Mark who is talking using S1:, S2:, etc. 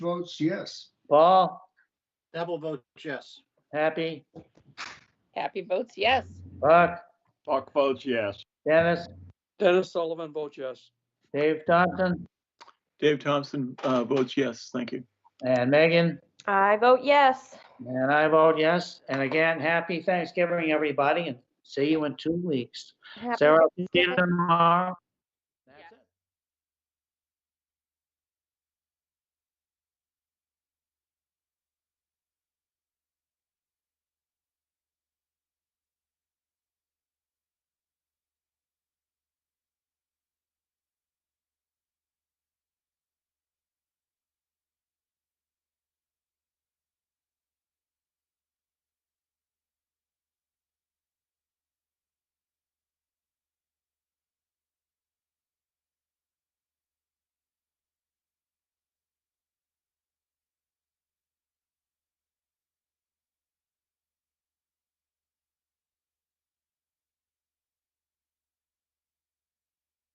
S1: votes yes.
S2: Paul,
S3: Neville votes yes.
S2: Happy,
S4: Happy votes yes.
S2: Buck,
S5: Buck votes yes.
S2: Dennis,
S6: Dennis Sullivan votes yes.
S2: Dave Thompson,
S5: Dave Thompson uh, votes yes. Thank you.
S2: and Megan,
S7: I vote yes.
S2: and I vote yes. And again, happy Thanksgiving, everybody, and see you in two weeks.
S7: Happy
S2: Sarah, see you
S7: Thanksgiving.
S2: tomorrow.